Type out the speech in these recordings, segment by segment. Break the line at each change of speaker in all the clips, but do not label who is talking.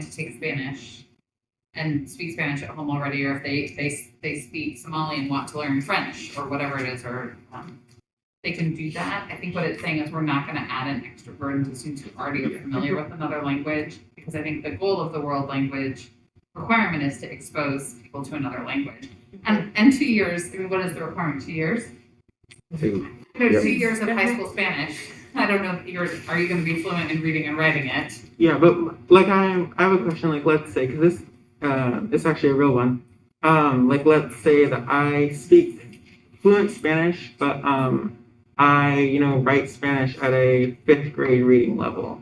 to take Spanish and speak Spanish at home already, or if they they they speak Somali and want to learn French or whatever it is, or um, they can do that. I think what it's saying is we're not going to add an extra burden to students who already are familiar with another language, because I think the goal of the world language requirement is to expose people to another language. And and two years, I mean, what is the requirement? Two years?
Two.
No,
Yep.
two years of high school Spanish. I don't know if you're are you going to be fluent in reading and writing it?
Yeah, but like I, I have a question. Like, let's say, because this, uh, it's actually a real one. Um, like, let's say that I speak fluent Spanish, but um, I, you know, write Spanish at a fifth grade reading level.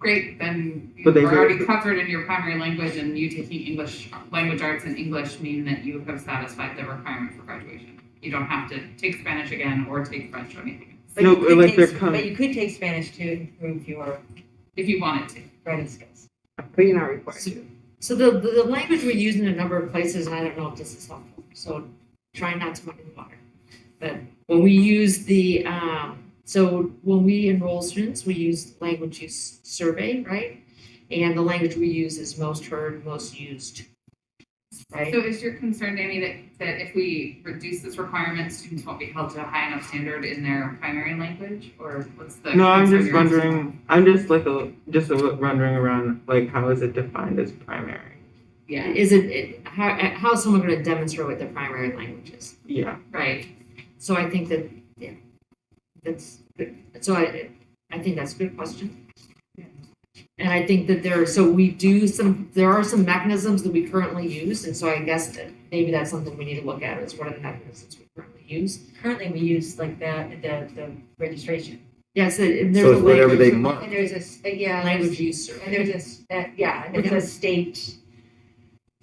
Great, then you
But they
are
do-
already covered in your primary language, and you taking English language arts and English mean that you have satisfied the requirement for graduation. You don't have to take Spanish again or take French or anything else
No,
you could
like
take-
they're coming.
But you could take Spanish to improve your
if you wanted to.
writing skills.
But you're not required.
So- So the, the, the language we use in a number of places, and I don't know if this is helpful, so try not to muddy the water. But when we use the, um, so when we enroll students, we use language use survey, right? And the language we use is most heard, most used, right?
So is your concern, Danny, that, that if we reduce this requirement, students won't be held to a high enough standard in their primary language, or what's the?
No, I'm
concern
just
you're-
wondering. I'm just like a just a, wondering around. Like, how is it defined as primary?
Yeah,
Is it- it, how, how is someone gonna demonstrate what their primary language is?
Yeah.
right.
So I think that, yeah, that's good. So I, I think that's a good question. And I think that there, so we do some, there are some mechanisms that we currently use, and so I guess that maybe that's something we need to look at, is what are the mechanisms we currently use?
Currently, we use like the, the, the registration.
Yes, and
So
there's a
it's whatever they
language,
mark.
And there's a, s- uh, yeah, there's-
language use survey.
and there's a, s- uh, yeah, and it's a state,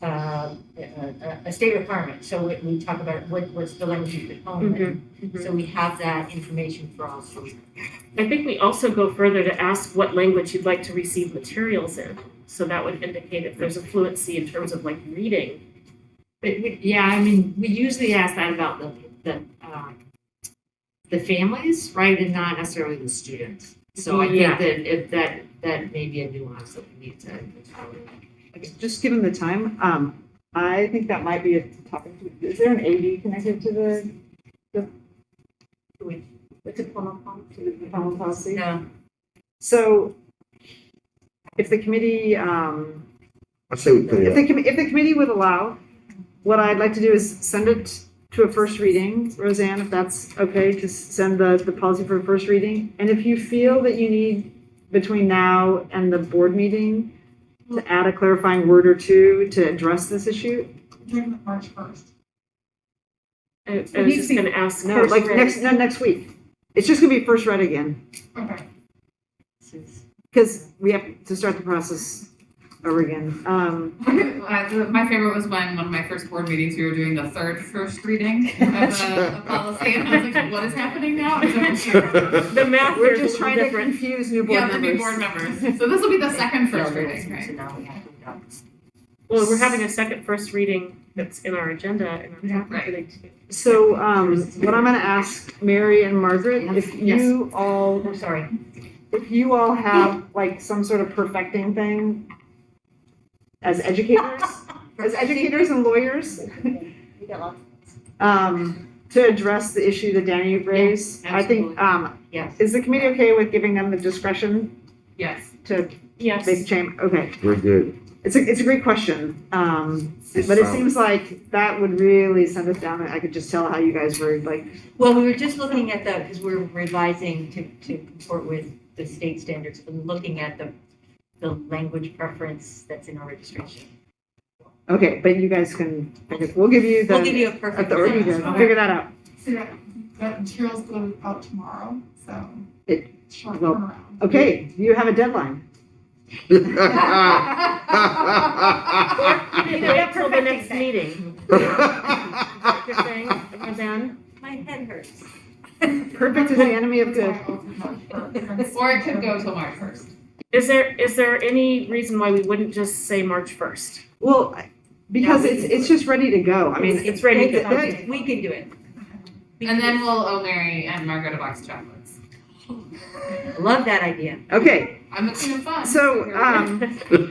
uh, a, a state requirement. So we, we talk about what, what's the language you could home.
Mhm, mhm.
So we have that information for all students.
I think we also go further to ask what language you'd like to receive materials in. So that would indicate if there's a fluency in terms of like reading.
But we, yeah, I mean, we usually ask that about the the um, the families, right, and not necessarily the students. So I
Yeah.
think that if that that may be a nuance that we need to.
Just given the time, um, I think that might be a topic. Is there an AD connected to the, the? What's it called? To the diploma policy?
No,
So if the committee, um,
I say we put
if
it
the,
up.
commi- if the committee would allow, what I'd like to do is send it to a first reading, Roseanne, if that's okay, to send the, the policy for a first reading. And if you feel that you need between now and the board meeting to add a clarifying word or two to address this issue,
During the March first.
I, I was
needs
just
to be-
gonna ask.
no,
first
like
read.
next, no, next week. It's just gonna be first read again,
Okay.
because we have to start the process over again. Um,
Uh, the- My favorite was when one of my first board meetings, we were doing the third first reading of a, a policy, and I was like, what is happening now? And so-
The math here
We're
is a little
just trying to
different.
confuse new board
Yeah, the
members.
new board members. So this will be the second first reading, right?
So now we have to know.
Well, we're having a second first reading that's in our agenda and I'm happy
Right.
that it-
So, um, what I'm gonna ask Mary and Margaret, if
Yes.
you all,
I'm sorry.
if you all have like some sort of perfecting thing as educators, as educators and lawyers,
We got lots.
um, to address the issue that Danny raised, I think,
absolutely.
um,
Yes.
is the committee okay with giving them the discretion
Yes.
to
Yes.
make change? Okay,
We're good.
it's a, it's a great question, um, but it seems like that would really send us down, I could just tell how you guys were like
Well, we were just looking at the, because we're revising to, to comport with the state standards, and looking at the, the language preference that's in our registration.
Okay, but you guys can, okay, we'll give you
We'll give
the
you a perfect.
authority to figure that out.
So that, that material's go out tomorrow, so.
It-
Short
well-
turnaround.
Okay, you have a deadline.
We have till the next meeting, you're saying, or then?
My head hurts.
Perfect is the enemy of
That's why I
good.
opened up first.
Or it could go till March first.
Is there, is there any reason why we wouldn't just say March first?
Well, because it's, it's just ready to go. I mean,
It's ready to
They-
go.
they-
We can do it. We
And
can
then we'll owe Mary and Margaret a box of chocolates.
do it. Love that idea.
okay,
I'm the queen of fun.
so,
here we go.
um,